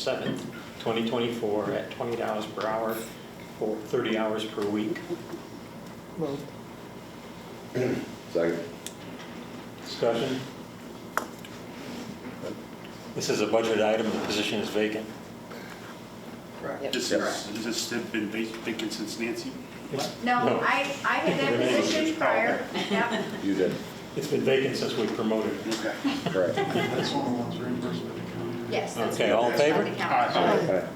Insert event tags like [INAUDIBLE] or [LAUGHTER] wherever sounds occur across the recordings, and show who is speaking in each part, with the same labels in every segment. Speaker 1: 7th, 2024, at $20 per hour for 30 hours per week.
Speaker 2: Second.
Speaker 1: Discussion? This is a budget item, the position is vacant.
Speaker 2: Correct.
Speaker 3: This
Speaker 2: Yes.
Speaker 3: is, this has been vacant since Nancy.
Speaker 1: No.
Speaker 4: No, I, I had
Speaker 1: [LAUGHS]
Speaker 4: that position prior. Yep.
Speaker 2: You did,
Speaker 1: It's been vacant since we promoted it.
Speaker 3: Okay.
Speaker 2: correct.
Speaker 5: That's one of the ones reimbursed by the county.
Speaker 4: Yes. that's
Speaker 1: [LAUGHS] Okay, all in
Speaker 4: reimbursed
Speaker 1: favor?
Speaker 4: by the county.
Speaker 2: Okay.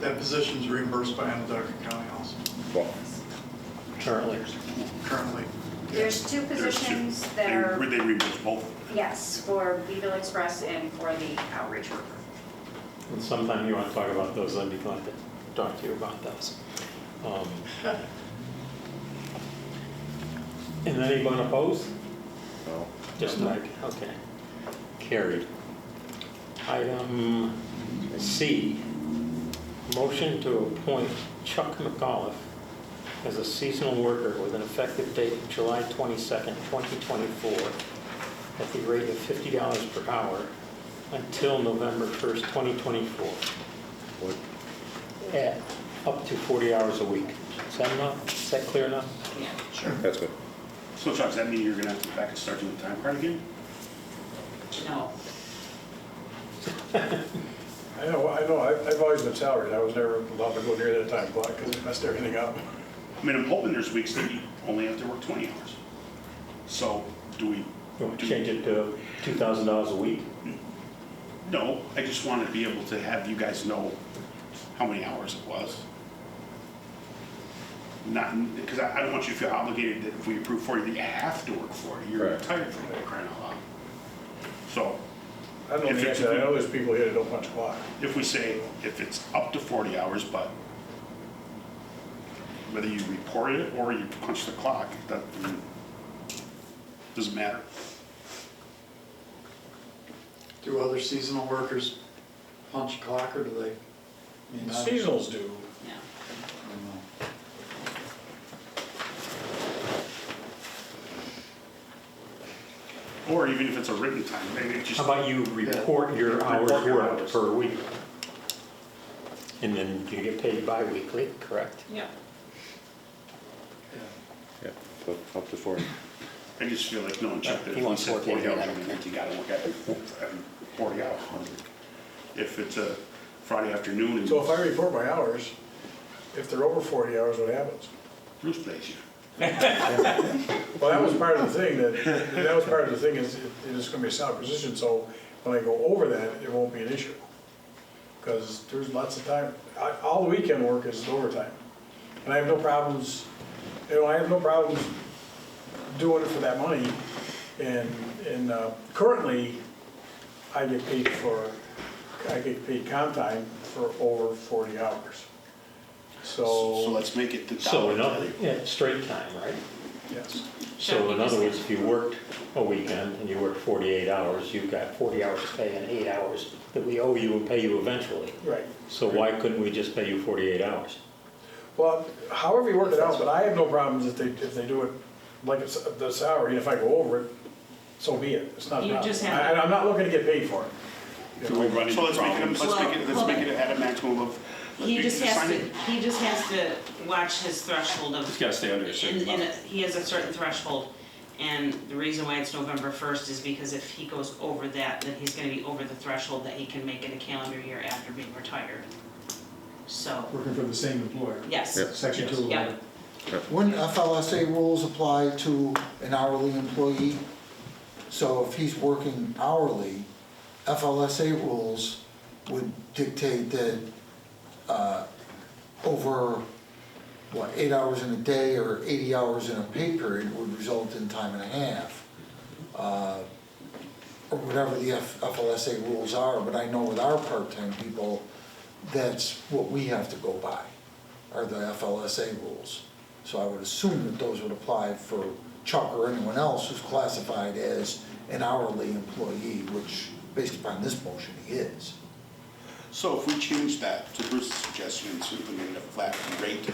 Speaker 5: That position's reimbursed by Anadarko County also,
Speaker 2: Well,
Speaker 1: currently.
Speaker 5: currently.
Speaker 4: There's two
Speaker 3: There's two.
Speaker 4: positions
Speaker 3: They-
Speaker 4: that are,
Speaker 3: They reimbursed both.
Speaker 4: yes, for Beville Express and for the outreach worker.
Speaker 1: And sometime you want to talk about those, I'd be glad to talk to you about those. Um, And anyone opposed?
Speaker 2: no.
Speaker 1: Just Mike, okay. Carried. Item C, motion to appoint Chuck McAuliffe as a seasonal worker with an effective date of July 22nd, 2024, at the rate of $50 per hour until November 1st, 2024,
Speaker 2: What-
Speaker 1: at up to 40 hours a week. Is that enough? Is that clear enough?
Speaker 2: That's good.
Speaker 3: So Chuck, does that mean you're gonna have to go back and start doing the time card again?
Speaker 4: No.
Speaker 6: I know, I know, I- I've always been salaried, I was never allowed to go near that time clock because it messed everything up. [LAUGHS]
Speaker 3: I mean, I'm hoping there's weeks that you only have to work 20 hours. So do we?
Speaker 1: You want to
Speaker 3: do-
Speaker 1: change it to $2,000 a week?
Speaker 3: No, I just want to be able to have you guys know how many hours it was. Not, because I I don't want you to feel obligated that if we approve 40, that you have to work 40. You're
Speaker 2: Right.
Speaker 3: retired from that, crying out loud. So
Speaker 6: I don't know the answer, I know there's people here that don't punch clock.
Speaker 3: if we say, if it's up to 40 hours, but whether you report it or you punch the clock, that I mean, doesn't matter.
Speaker 5: Do other seasonal workers punch a clock or do they? I mean, I-
Speaker 6: Seasonals do.
Speaker 5: I don't know.
Speaker 3: Or even if it's a written time, maybe it just,
Speaker 1: How about you report your hours
Speaker 3: Report your
Speaker 1: worked
Speaker 3: hours.
Speaker 1: per week? And then you get paid bi-weekly, correct?
Speaker 4: Yeah.
Speaker 2: Yeah, so up to 40.
Speaker 3: I just feel like, no, one checked it.
Speaker 1: Uh, He wants
Speaker 3: If we said
Speaker 1: 40
Speaker 3: 40 hours,
Speaker 1: hours.
Speaker 3: I mean, you gotta look at it, um, 40 hours. If it's a Friday afternoon and
Speaker 6: So if I report my hours, if they're over 40 hours, what happens?
Speaker 3: Bruce plays you.
Speaker 6: Well, that was part of the thing, that, that was part of the thing, is it it is gonna be a salary position, so when I go over that, it won't be an issue. Because there's lots of time, I- all the weekend work is overtime. And I have no problems, you know, I have no problems doing it for that money. And, and uh, currently, I get paid for, I get paid comp time for over 40 hours.
Speaker 3: So
Speaker 6: So,
Speaker 3: let's make it the
Speaker 1: So
Speaker 3: dollar.
Speaker 1: in other, yeah, straight time, right?
Speaker 6: yes,
Speaker 1: So in other words, if you worked a weekend and you worked 48 hours, you've got 40 hours pay and eight hours that we owe you and pay you eventually.
Speaker 6: right.
Speaker 1: So why couldn't we just pay you 48 hours?
Speaker 6: Well, however you work it out, but I have no problems if they, if they do it like it's the salary, and if I go over it, so be it, it's not a
Speaker 7: You
Speaker 6: problem.
Speaker 7: just have-
Speaker 6: I- I'm not looking to get paid for it.
Speaker 3: So let's make it, let's make it, let's
Speaker 7: Well,
Speaker 3: make it at a maximum of.
Speaker 7: He just has
Speaker 3: sign
Speaker 7: to,
Speaker 3: it.
Speaker 7: he just has to watch his threshold of.
Speaker 3: He's gotta stay under a certain
Speaker 7: and- and
Speaker 3: amount.
Speaker 7: He has a certain threshold, and the reason why it's November first is because if he goes over that, then he's gonna be over the threshold that he can make in a calendar year after being retired. So,
Speaker 8: working for the same employer.
Speaker 7: yes,
Speaker 2: Yeah.
Speaker 8: Section two oh
Speaker 7: yeah,
Speaker 8: eleven.
Speaker 9: Wouldn't FLSA rules apply to an hourly employee? So if he's working hourly, FLSA rules would dictate that uh, over, what, eight hours in a day or 80 hours in a pay period would result in time and a half, uh, or whatever the F- FLSA rules are, but I know with our part-time people, that's what we have to go by, are the FLSA rules. So I would assume that those would apply for Chuck or anyone else who's classified as an hourly employee, which, based upon this motion, he is.
Speaker 3: So if we change that to Bruce's suggestion, so we made it a flat rate,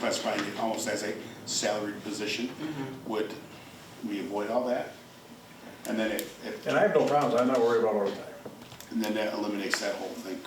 Speaker 3: classifying it almost as a salaried position, would we avoid all that? And then if, if,
Speaker 6: And I have no problems, I'm not worried about overtime.
Speaker 3: And then that eliminates that whole thing.